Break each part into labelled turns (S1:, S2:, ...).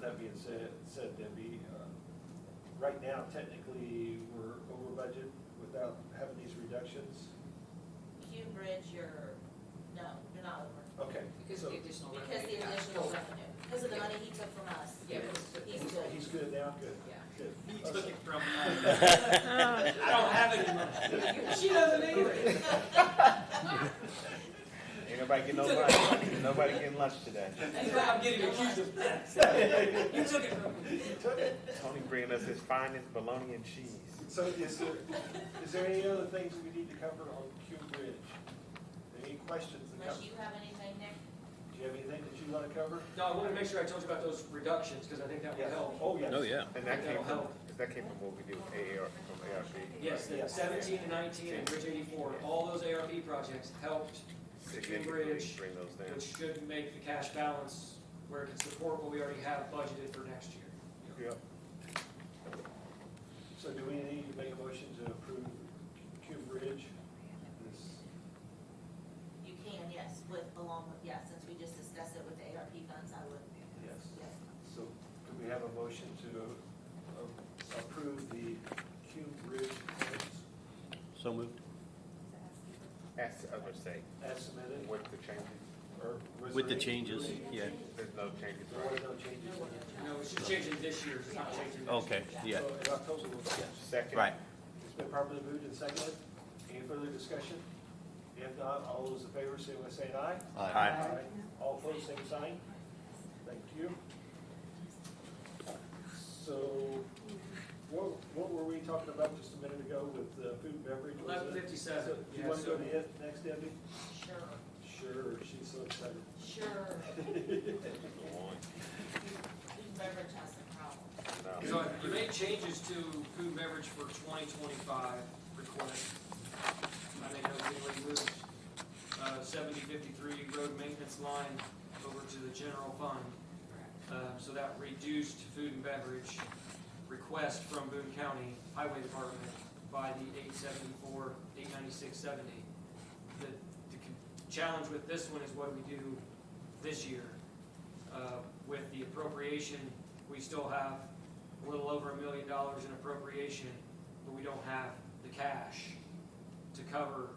S1: that being said, said Debbie, uh, right now technically, we're over budget without having these reductions.
S2: If you bridge your, no, you're not over,
S1: Okay.
S3: Because
S1: so
S3: of the additional revenue.
S2: because the
S3: yeah.
S2: additional revenue, because of the money he took from us.
S3: Yeah, but-
S2: He's
S1: he's- He's good now, good,
S3: Yeah.
S1: good.
S4: He took
S1: Okay.
S4: it from us. I don't have it anymore. She doesn't either.
S5: Ain't nobody getting no lunch, nobody getting lunch today.
S4: That's why I'm getting accused of that. You took it from me.
S1: He took it.
S5: Tony bringing us his finest bologna and cheese.
S1: So is there, is there any other things we need to cover on Q Bridge? Any questions that come?
S2: Unless you have anything, Nick?
S1: Do you have anything that you want to cover?
S4: No, I wanted to make sure I told you about those reductions, because I think that will
S1: Yes.
S4: help.
S1: Oh, yes.
S6: Oh, yeah.
S5: And that came from, that came from what we did with AAR, from ARP.
S4: Yes, the
S1: Yes.
S4: seventeen and nineteen and Bridge eighty-four, all those ARP projects helped,
S5: Significantly
S4: Cambridge,
S5: bring those down.
S4: which should make the cash balance where it can support what we already have budgeted for next year.
S5: Yep.
S1: So do we need to make a motion to approve Q Bridge? This-
S2: You can, yes, with, along with, yeah, since we just discussed it with the ARP funds, I would,
S1: Yes.
S2: yes.
S1: So do we have a motion to um, approve the Q Bridge plans
S6: So moved.
S5: As the others say,
S1: as submitted?
S5: with the changes,
S1: Or was
S6: With the
S1: there any-
S6: changes, yeah.
S5: there's no changes,
S1: There were
S5: right?
S1: no changes.
S4: No, it's just changing this year, it's not changing next year.
S6: Okay, yeah,
S1: So in October, we'll
S5: Second.
S6: right.
S1: It's been properly moved and seconded. Any further discussion? If not, all those in favor, say by saying aye.
S6: Aye.
S1: All opposed, same sign. Thank you. So, what, what were we talking about just a minute ago with the food and beverage? was it?
S4: Eleven uh, fifty-seven.
S1: So, Do you want to go to it next, Debbie?
S2: Sure,
S1: Sure, she's so excited.
S2: sure,
S5: Go on.
S2: food and beverage has some problems.
S5: No.
S4: So you made changes to food and beverage for twenty twenty-five request. I made those, we moved, uh, seventy fifty-three road maintenance line over to the general fund. Uh, so that reduced food and beverage request from Boone County Highway Department by the eight seventy-four, eight ninety-six seventy. The, the con- challenge with this one is what we do this year. Uh, with the appropriation, we still have a little over a million dollars in appropriation, but we don't have the cash to cover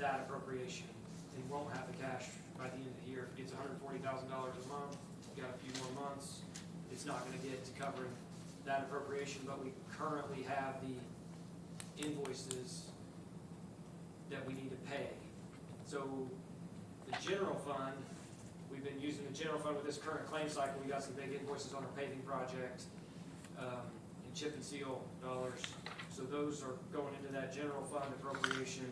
S4: that appropriation. They won't have the cash by the end of the year. If it gets hundred and forty thousand dollars a month, we got a few more months, it's not gonna get to covering that appropriation, but we currently have the invoices that we need to pay. So the general fund, we've been using the general fund with this current claim cycle, we got some big invoices on our paving project, um, and chip and seal dollars. So those are going into that general fund appropriation,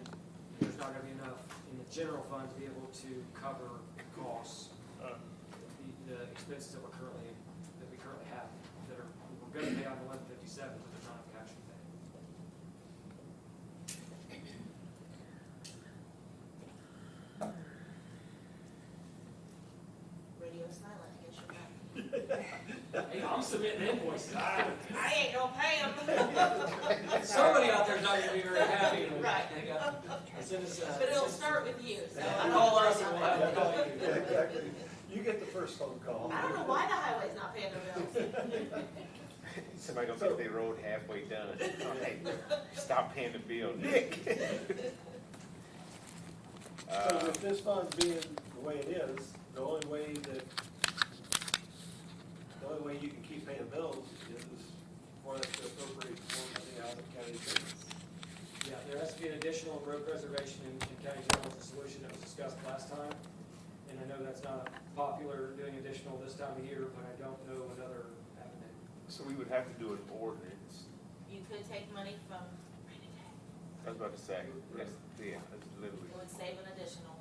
S4: there's not gonna be enough in the general fund to be able to cover the costs, uh, the, the expenses that we're currently, that we currently have, that are, we're gonna pay on eleven fifty-seven, but they're not cash to pay.
S2: Radio silent, I guess you're right.
S4: Hey, I'm submitting invoices, I,
S2: I ain't gonna pay him.
S4: somebody out there's not gonna be very happy. when
S2: Right.
S4: they got- it's in this, uh,
S2: But it'll start with you, so. I
S4: You
S2: don't-
S4: call us and we'll have to call
S1: Yeah,
S4: you.
S1: Exactly. You get the first phone call.
S2: I don't know why the highway's not paying their bills.
S5: Somebody gonna get their road halfway done. Oh, hey, Stop paying the bill, Nick.
S1: So
S5: Uh,
S1: with this fund being the way it is, the only way that, the only way you can keep paying bills is for us to appropriate more money out of county savings.
S4: Yeah, there has to be an additional road preservation in, in county general, it's a solution that was discussed last time. And I know that's not popular, doing additional this time of year, but I don't know another avenue.
S5: So we would have to do an ordinance.
S2: You could take money from,
S5: I was about to say, that's, yeah, that's literally,
S2: it would save an additional,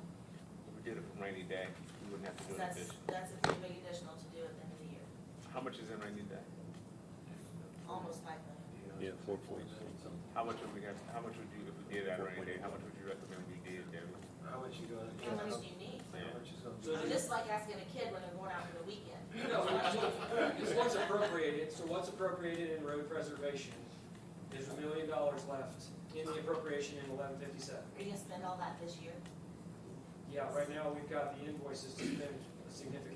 S5: if we did it for rainy day, we wouldn't have to
S2: 'cause
S5: do an
S2: that's,
S5: addition.
S2: that's a pretty big additional to do at the end of the year,
S5: How much is in rainy day?
S2: almost five million.
S6: Yeah, four point.
S5: How much would we have, how much would you, if we did that rainy day, how much would you recommend we did, Debbie?
S1: How much you gonna,
S2: How
S1: how
S2: much
S1: much
S2: do you need?
S1: is gonna
S2: I
S4: So
S2: mean,
S4: just-
S2: this is like asking a kid when they're going out for the weekend.
S4: No, it's what's appropriated, so what's appropriated in road preservation, there's a million dollars left in the appropriation in eleven fifty-seven.
S2: Are you gonna spend all that this year?
S4: Yeah, right now, we've got the invoices to spend a significant